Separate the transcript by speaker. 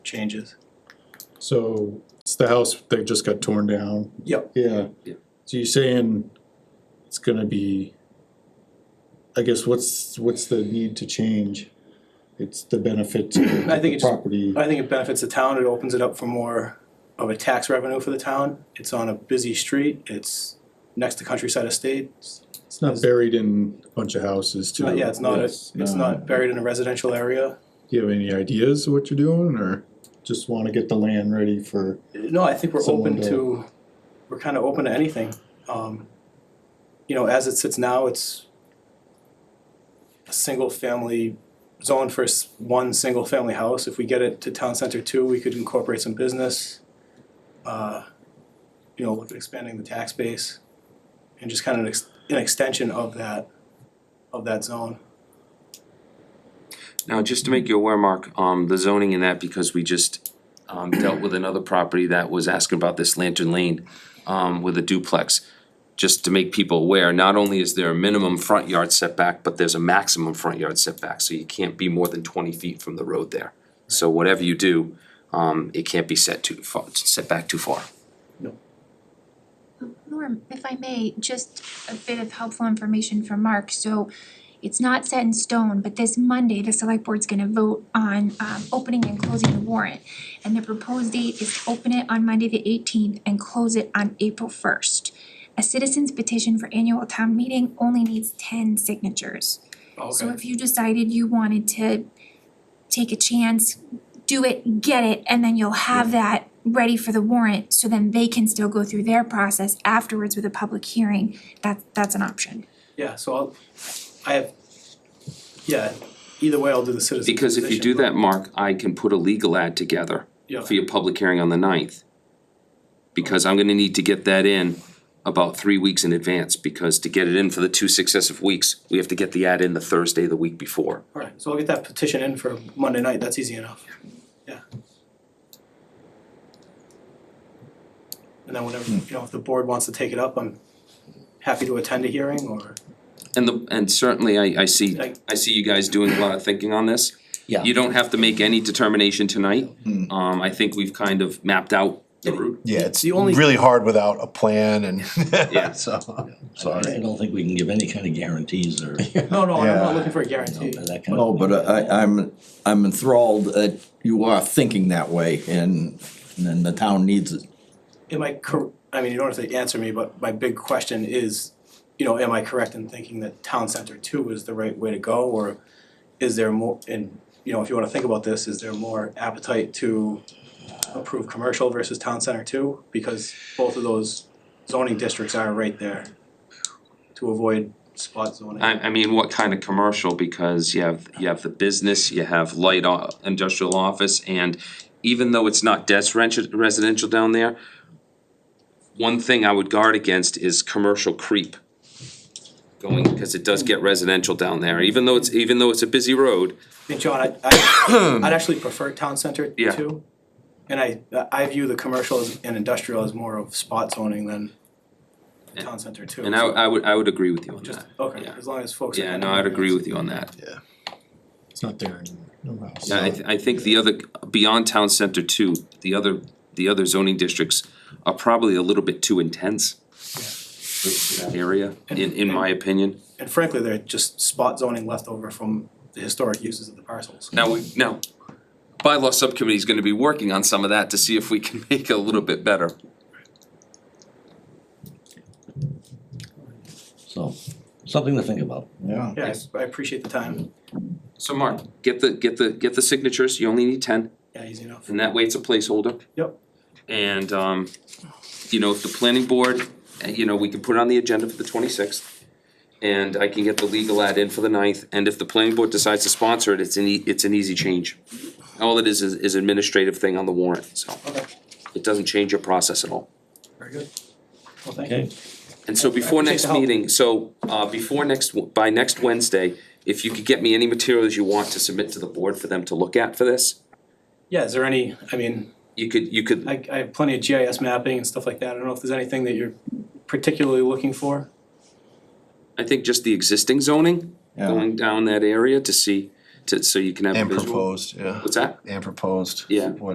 Speaker 1: changes.
Speaker 2: So it's the house that just got torn down?
Speaker 1: Yep.
Speaker 2: Yeah.
Speaker 3: Yeah.
Speaker 2: So you're saying it's gonna be, I guess, what's, what's the need to change? It's the benefit to
Speaker 1: I think
Speaker 2: the
Speaker 1: it's-
Speaker 2: property.
Speaker 1: I think it benefits the town, it opens it up for more of a tax revenue for the town. It's on a busy street, it's next to Countryside Estates.
Speaker 2: It's not buried in a bunch of houses too.
Speaker 1: Not- Yeah, it's not, a-
Speaker 4: Yes,
Speaker 1: it's not buried in a residential area.
Speaker 2: Do you have any ideas of what you're doing or just wanna get the land ready for?
Speaker 1: No, I think we're
Speaker 2: Someone
Speaker 1: open
Speaker 2: to-
Speaker 1: to, we're kind of open to anything. Um, You know, as it sits now, it's a single-family zone for s- one single-family house. If we get it to Town Center Two, we could incorporate some business. uh, You know, look at expanding the tax base and just kind of an ex- an extension of that, of that zone.
Speaker 3: Now, just to make you aware, Mark, um, the zoning in that, because we just, um, dealt with another property that was asking about this Lantern Lane, um, with a duplex. Just to make people aware, not only is there a minimum front yard setback, but there's a maximum front yard setback, so you can't be more than twenty feet from the road there. So whatever you do, um, it can't be set too far, set back too far.
Speaker 5: Norm, if I may, just a bit of helpful information from Mark, so it's not set in stone, but this Monday, the select board's gonna vote on um opening and closing the warrant. And the proposed date is to open it on Monday the eighteenth and close it on April first. A citizen's petition for annual town meeting only needs ten signatures.
Speaker 1: Oh,
Speaker 5: So if you decided you wanted to take a chance, do it, get it, and then you'll have that ready for the warrant, so then they can still go through their process afterwards with a public hearing, that that's an option.
Speaker 1: Yeah, so I'll, I have, yeah, either way, I'll do the citizen
Speaker 3: Because if you
Speaker 1: petition,
Speaker 3: do
Speaker 1: but-
Speaker 3: that, Mark, I can put a legal ad together
Speaker 1: Yeah.
Speaker 3: for your public hearing on the ninth. Because I'm gonna need to get that in about three weeks in advance, because to get it in for the two successive weeks, we have to get the ad in the Thursday the week before.
Speaker 1: Alright, so I'll get that petition in for Monday night, that's easy enough. Yeah. And then whatever, you know, if the board wants to take it up, I'm happy to attend a hearing or,
Speaker 3: And the, and certainly I, I see,
Speaker 1: Like-
Speaker 3: I see you guys doing a lot of thinking on this.
Speaker 4: Yeah.
Speaker 3: You don't have to make any determination tonight. Um, I think we've kind of mapped out the route.
Speaker 6: Yeah, it's
Speaker 1: The only-
Speaker 6: really hard without a plan and, so,
Speaker 4: I
Speaker 6: sorry.
Speaker 4: don't think we can give any kind of guarantees or,
Speaker 1: no, no, I'm not
Speaker 6: Yeah.
Speaker 1: looking for a guarantee.
Speaker 4: that kind
Speaker 7: No,
Speaker 4: of.
Speaker 7: Oh, but I, I'm, I'm enthralled that you are thinking that way and, and the town needs it.
Speaker 1: Am I cor- I mean, you don't have to answer me, but my big question is, you know, am I correct in thinking that town center two is the right way to go or is there more, and, you know, if you wanna think about this, is there more appetite to approve commercial versus town center two? Because both of those zoning districts are right there to avoid spot zoning.
Speaker 3: I, I mean, what kind of commercial, because you have, you have the business, you have light o- industrial office, and even though it's not des- rent- residential down there, one thing I would guard against is commercial creep. Going, because it does get residential down there, even though it's, even though it's a busy road,
Speaker 1: And John, I, I, I'd actually prefer town center
Speaker 3: Yeah.
Speaker 1: too. And I, I view the commercial as- and industrial as more of spot zoning than town center two.
Speaker 3: and I, I would, I would agree with you on
Speaker 1: Just,
Speaker 3: that.
Speaker 1: okay,
Speaker 3: yeah.
Speaker 1: as long as folks.
Speaker 3: Yeah, no, I'd agree with you on that.
Speaker 2: It's not there anymore, no house.
Speaker 3: Yeah, I th- I think the other, beyond town center too, the other, the other zoning districts are probably a little bit too intense. For for that area, in in my opinion.
Speaker 1: And frankly, they're just spot zoning left over from the historic uses of the parcels.
Speaker 3: Now, we, now, bylaw subcommittee is gonna be working on some of that to see if we can make it a little bit better.
Speaker 4: So, something to think about.
Speaker 6: Yeah.
Speaker 1: Yeah, I- I appreciate the time.
Speaker 3: So Mark, get the, get the, get the signatures, you only need ten,
Speaker 1: Yeah, easy enough.
Speaker 3: and that way it's a placeholder.
Speaker 1: Yep.
Speaker 3: And um, you know, if the planning board, uh, you know, we can put it on the agenda for the twenty-sixth. And I can get the legal ad in for the 9th. and if the planning board decides to sponsor it, it's an e- it's an easy change. All it is is is administrative thing on the warrant, so
Speaker 1: Okay,
Speaker 3: it doesn't change your process at all.
Speaker 1: very good. Well, thank you.
Speaker 4: Okay,
Speaker 3: And so before
Speaker 1: appreciate
Speaker 3: next
Speaker 1: the help.
Speaker 3: meeting, so uh before next, by next Wednesday, if you could get me any materials you want to submit to the board for them to look at for this,
Speaker 1: Yeah, is there any, I mean,
Speaker 3: you could, you could,
Speaker 1: I, I have plenty of GIS mapping and stuff like that. I don't know if there's anything that you're particularly looking for.
Speaker 3: I think just the existing zoning,
Speaker 6: Yeah.
Speaker 3: going down that area to see, to, so you can have a
Speaker 6: And
Speaker 3: visual.
Speaker 6: proposed, yeah,
Speaker 3: What's that?
Speaker 6: and proposed.
Speaker 3: Yeah.
Speaker 6: What